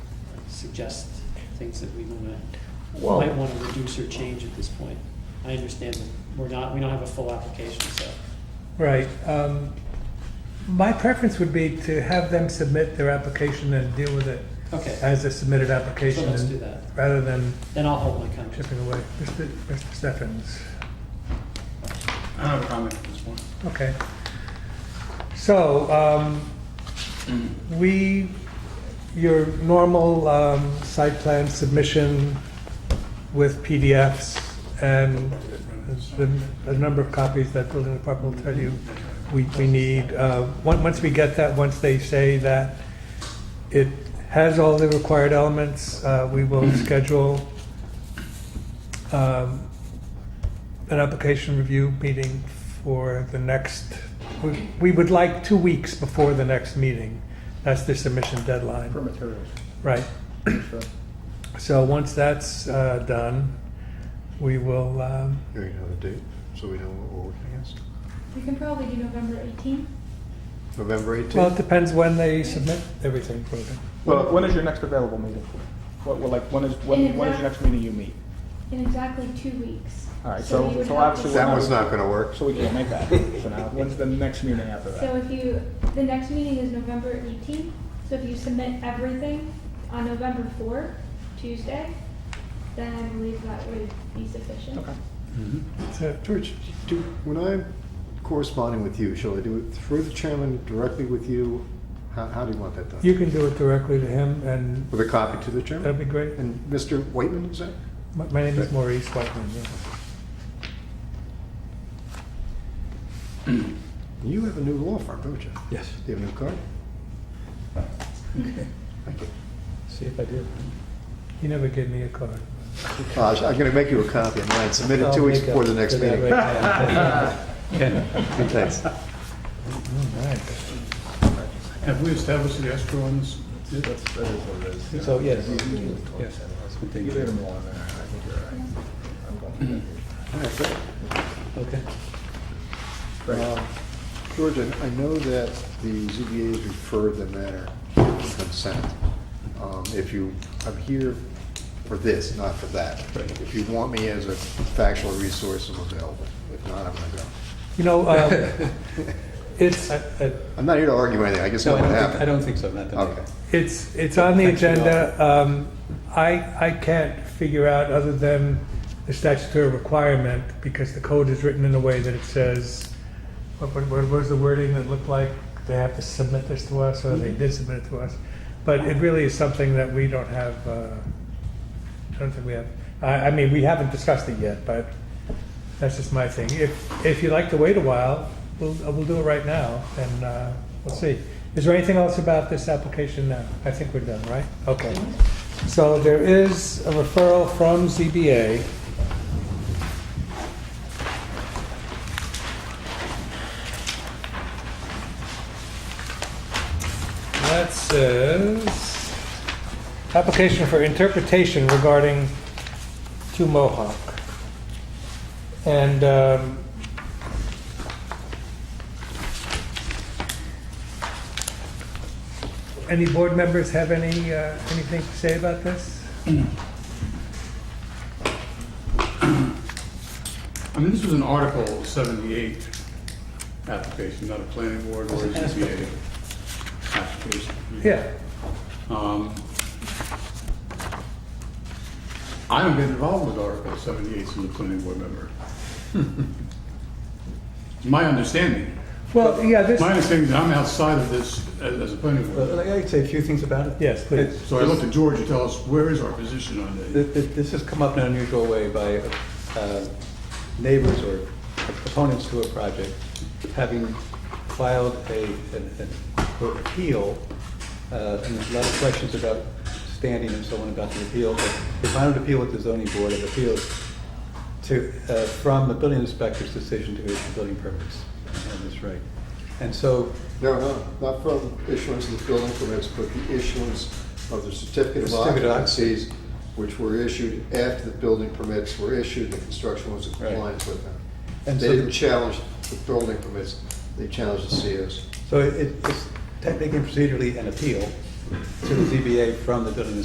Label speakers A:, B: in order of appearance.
A: suggest things that we wanna,
B: Well-
A: might wanna reduce or change at this point. I understand that we're not, we don't have a full application, so.
C: Right. um, My preference would be to have them submit their application and deal with it
A: Okay,
C: as a submitted
A: so
C: application.
A: let's
C: and-
A: do that.
C: Rather than
A: Then I'll hold my comment.
C: chipping away. Mr. Mr. Stephens,
D: I don't have a comment at this point.
C: okay. So, um, we, your normal um, site plan submission with PDFs and the the number of copies that building department will tell you we, we need. uh, on- Once we get that, once they say that it has all the required elements, uh, we will schedule um, an application review meeting for the next, we- we would like two weeks before the next meeting. That's the submission deadline.
D: For materials.
C: Right.
D: sure.
C: So once that's uh, done, we will, um,
E: Here you have a date, so we know what we're working against.
F: We can probably do November 18th.
E: November 18th?
C: well, it depends when they submit everything. Rhoda.
D: Well, when is your next available meeting? What, well, like, when is, when, when is your next meeting you meet?
F: In exactly two weeks.
D: All right, so-
F: you would
D: so
F: have
D: obviously
F: to-
E: That one's not gonna work.
D: So we can't make that. So now, when's the next meeting after
F: So
D: that?
F: if you, the next meeting is November 18th, so if you submit everything on November 4th, Tuesday, then I believe that would be sufficient.
D: Okay.
C: So,
E: George, do, when I'm corresponding with you, shall I do it through the chairman, directly with you? How, how do you want that done?
C: You can do it directly to him, and
E: With a copy to the
C: that'd
E: chairman?
C: be great.
E: And Mr. Whitman, is that?
C: My my name is Maurice Whiteman. yeah.
E: You have a new law firm, don't you?
B: Yes.
E: Do you have a new car? Thank you.
B: See if I do.
C: He never gave me a card.
E: Uh, I'm gonna make you a copy of mine, submit it
B: I'll
E: two weeks
B: make up
E: before the next
B: for that
E: meeting.
B: right
E: Okay, Thanks.
B: now. All right.
G: Have we established the escrow on this?
B: So, yes, yes.
E: All right, great.
B: Okay.
E: Um, George, I I know that the ZBA has referred the matter to consent. Um, If you, I'm here for this, not for that. If you want me as a factual resource, I'm available. If not, I'm gonna go.
C: You know, um, it's,
E: I'm not here to argue anything, I just know
B: No, I
E: what
B: don't think, I
E: happened.
B: don't think so, not that.
E: Okay.
C: it's, it's on the
B: Thanks for the
C: agenda. Um, I, I can't figure out, other than the statutory requirement, because the code is written in a way that it says, what, what, what was the wording that looked like? They have to submit this to us, or they did submit it to us. But it really is something that we don't have, uh, I don't think we have, I, I mean, we haven't discussed it yet, but that's just my thing. If, if you'd like to wait a while, we'll, uh, we'll do it right now, and uh, we'll see. Is there anything else about this application now? I think we're done, right? Okay. So there is a referral from ZBA. That says, application for interpretation regarding to Mohawk. And um, any board members have any, uh, anything to say about this?
G: I mean, this was an Article 78 application, not a planning board or a ZBA application.
C: Yeah,
G: Um, I don't get involved with Article 78 as a planning board member. It's My understanding,
C: well, yeah, this,
G: my understanding is that I'm outside of this as as a planning board.
D: uh,
B: Well, I'd like to say a few things about it.
C: Yes, please.
B: It's-
G: So I looked at George to tell us, where is our position on this?
B: Th- th- This has come up in an unusual way by uh, neighbors or opponents to a project having filed a, an an appeal, uh, and there's a lot of questions about standing and so on about the appeal. But They filed an appeal with the zoning board of appeals to, uh, from the building inspector's decision to issue building permits. And That's right. And so
E: No, no, not from issuance of the building permits, but the issuance of the certificate of
B: Certificate of occupancy.
E: occupancies, which were issued after the building permits were issued, the construction was in
B: Right.
E: compliance with them. They
B: And so the-
E: didn't challenge the building permits, they challenged the COs.
B: So it- it's technically and procedurally an appeal to the ZBA from the building